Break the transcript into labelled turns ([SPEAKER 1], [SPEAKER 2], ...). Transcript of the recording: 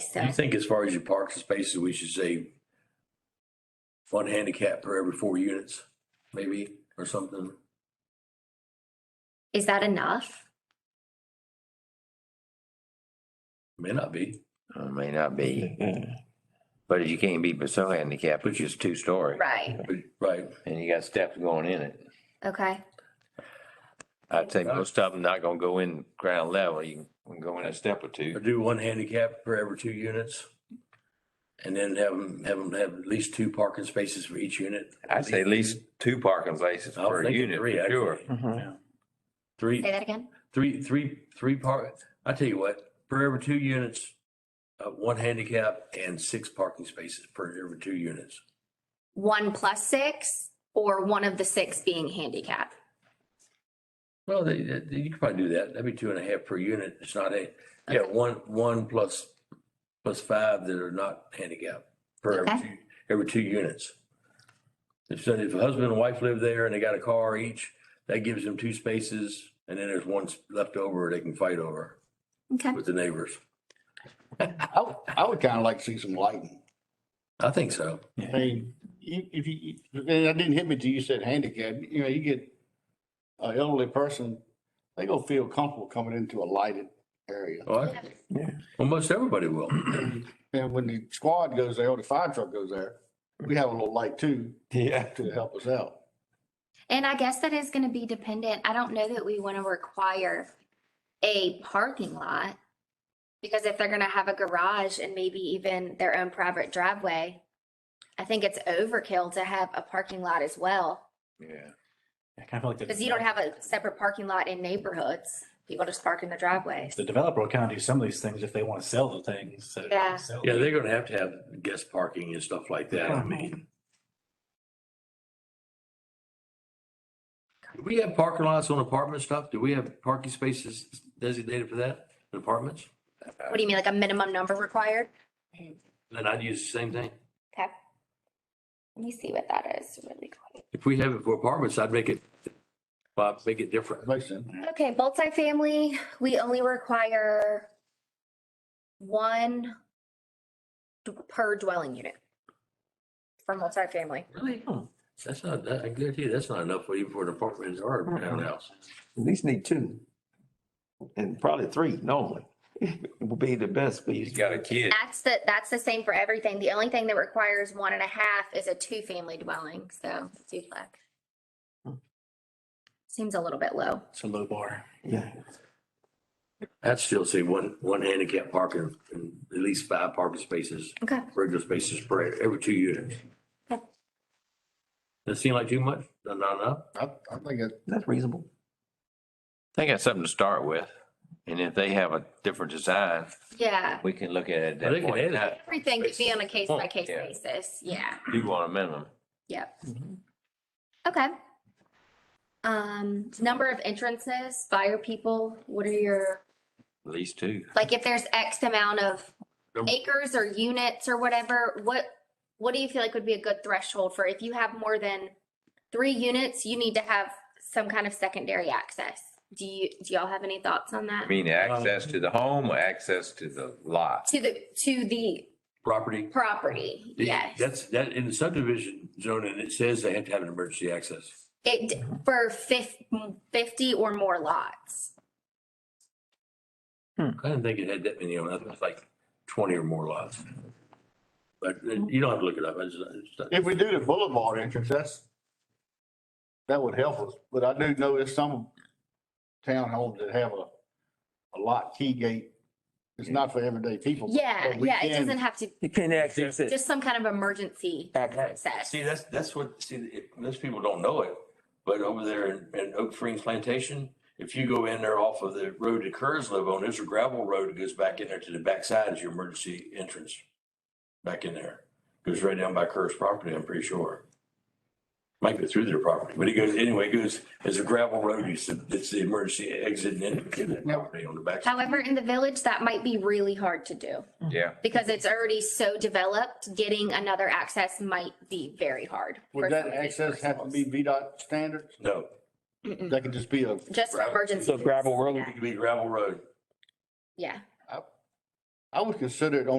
[SPEAKER 1] so.
[SPEAKER 2] You think as far as your parking spaces, we should say one handicap per every four units, maybe, or something?
[SPEAKER 1] Is that enough?
[SPEAKER 2] May not be.
[SPEAKER 3] Uh, may not be. But you can't be so handicapped, which is two story.
[SPEAKER 1] Right,
[SPEAKER 2] but- Right,
[SPEAKER 3] And you got steps going in it.
[SPEAKER 1] okay,
[SPEAKER 3] I'd say most of them not gonna go in ground level. You can go in a step or
[SPEAKER 2] or
[SPEAKER 3] two.
[SPEAKER 2] do one handicap for every two units. And then have them, have them have at least two parking spaces for each unit.
[SPEAKER 3] I'd say at least two parking places
[SPEAKER 2] I was
[SPEAKER 3] per
[SPEAKER 2] thinking
[SPEAKER 3] unit,
[SPEAKER 2] three,
[SPEAKER 3] for sure.
[SPEAKER 2] actually. Yeah. Three,
[SPEAKER 1] say that again,
[SPEAKER 2] three, three, three park, I tell you what, for every two units, uh, one handicap and six parking spaces per every two units.
[SPEAKER 1] one plus six or one of the six being handicap?
[SPEAKER 2] Well, they, they- you could probably do that. That'd be two and a half per unit. It's not a, yeah, one, one plus, plus five that are not handicapped per every
[SPEAKER 1] Okay.
[SPEAKER 2] two, every two units. If, so- if a husband and wife live there and they got a car each, that gives them two spaces and then there's one left over they can fight over
[SPEAKER 1] Okay,
[SPEAKER 2] with the neighbors.
[SPEAKER 4] I, would- I would kind of like to see some lighting.
[SPEAKER 2] I think so.
[SPEAKER 4] I mean, you- if you, you- that didn't hit me till you said handicap, you know, you get a elderly person, they gonna feel comfortable coming into a lighted area.
[SPEAKER 2] Well, I- well, most everybody will.
[SPEAKER 4] And when the squad goes there, or the fire truck goes there, we have a little light too
[SPEAKER 3] Yeah.
[SPEAKER 4] to help us out.
[SPEAKER 1] and I guess that is gonna be dependent, I don't know that we wanna require a parking lot. Because if they're gonna have a garage and maybe even their own private driveway, I think it's overkill to have a parking lot as well.
[SPEAKER 3] Yeah.
[SPEAKER 5] I kind of feel like. the
[SPEAKER 1] Cause you don't have a separate parking lot in neighborhoods, people just park in their driveways.
[SPEAKER 5] The developer will kind of do some of these things if they want to sell the things. so they can
[SPEAKER 1] Yeah.
[SPEAKER 5] sell
[SPEAKER 2] Yeah,
[SPEAKER 5] them.
[SPEAKER 2] they're gonna have to have guest parking and stuff like that, I mean. Do we have parking lots on apartment stuff? Do we have parking spaces designated for that, in apartments?
[SPEAKER 1] What do you mean, like a minimum number required?
[SPEAKER 2] Then I'd use the same thing.
[SPEAKER 1] Okay. Let me see what that is really quick.
[SPEAKER 2] If we have it for apartments, I'd make it, well, I'd make it different.
[SPEAKER 4] Makes sense.
[SPEAKER 1] Okay, multifamily, we only require one d- per dwelling unit for multifamily.
[SPEAKER 2] Really? Hmm, That's not, that, I guarantee you, that's not enough for even for an apartment or a townhouse.
[SPEAKER 6] At least need two. And probably three normally will be the best, but
[SPEAKER 3] He's got a kid.
[SPEAKER 1] That's the, that's the same for everything. The only thing that requires one and a half is a two-family dwelling, so duplex. Seems a little bit low.
[SPEAKER 5] It's a low bar.
[SPEAKER 6] yeah.
[SPEAKER 2] I'd still say one, one handicap parking and at least five parking spaces,
[SPEAKER 1] Okay.
[SPEAKER 2] regular spaces per, every two units.
[SPEAKER 1] Okay.
[SPEAKER 2] That seem like too much? Not enough?
[SPEAKER 4] I, I think it,
[SPEAKER 6] That's reasonable.
[SPEAKER 3] They got something to start with. And if they have a different design,
[SPEAKER 1] Yeah,
[SPEAKER 3] we can look at it.
[SPEAKER 2] Well, they
[SPEAKER 3] at that
[SPEAKER 2] can
[SPEAKER 3] point in
[SPEAKER 2] add
[SPEAKER 3] time.
[SPEAKER 1] everything could be on a case-by-case
[SPEAKER 3] Yeah.
[SPEAKER 1] basis, yeah.
[SPEAKER 3] You want a minimum.
[SPEAKER 1] Yep.
[SPEAKER 6] Mm-hmm.
[SPEAKER 1] Okay. Um, number of entrances, fire people, what are your,
[SPEAKER 3] At least two.
[SPEAKER 1] like if there's X amount of
[SPEAKER 2] Num-
[SPEAKER 1] acres or units or whatever, what, what do you feel like would be a good threshold for if you have more than three units, you need to have some kind of secondary access? Do you, do y'all have any thoughts on
[SPEAKER 3] I
[SPEAKER 1] that?
[SPEAKER 3] mean, access to the home or access to the lot.
[SPEAKER 1] To the, to the
[SPEAKER 2] Property?
[SPEAKER 1] property, yes.
[SPEAKER 2] That's, that, in the subdivision zone, and it says they have to have an emergency access.
[SPEAKER 1] It, for fif- fifty or more lots.
[SPEAKER 2] I didn't think it had that many on it. I think it's like twenty or more lots. But uh, you don't have to look it up. I just- I just-
[SPEAKER 4] if we do the boulevard entrance, that's, that would help us, but I do know there's some townhomes that have a, a lock key gate. It's not for everyday people.
[SPEAKER 1] Yeah,
[SPEAKER 4] but we
[SPEAKER 1] yeah, it
[SPEAKER 4] can-
[SPEAKER 1] doesn't have to
[SPEAKER 6] You can't access it.
[SPEAKER 1] Just some kind of emergency access.
[SPEAKER 2] See, that's, that's what, see, it- most people don't know it, but over there in, in Oak Springs Plantation, if you go in there off of the road that Kerr's live on, there's a gravel road that goes back in there to the backside is your emergency entrance. Back in there. Goes right down by Kerr's property, I'm pretty sure. Might go through their property, but it goes, anyway, it goes, there's a gravel road, it's, the- it's the emergency exit and entrance to that property on the back.
[SPEAKER 1] However, in the village, that might be really hard to do
[SPEAKER 3] Yeah.
[SPEAKER 1] because it's already so developed. Getting another access might be very hard. for
[SPEAKER 4] Would that
[SPEAKER 1] some of these
[SPEAKER 4] access have to
[SPEAKER 1] parcels.
[SPEAKER 4] be VDOT standards?
[SPEAKER 2] No,
[SPEAKER 1] Mm-mm.
[SPEAKER 4] That could just be a,
[SPEAKER 1] Just for
[SPEAKER 2] gravel.
[SPEAKER 1] emergency.
[SPEAKER 6] So gravel road.
[SPEAKER 1] Yeah.
[SPEAKER 2] it could be gravel road.
[SPEAKER 1] Yeah.
[SPEAKER 4] I would consider it on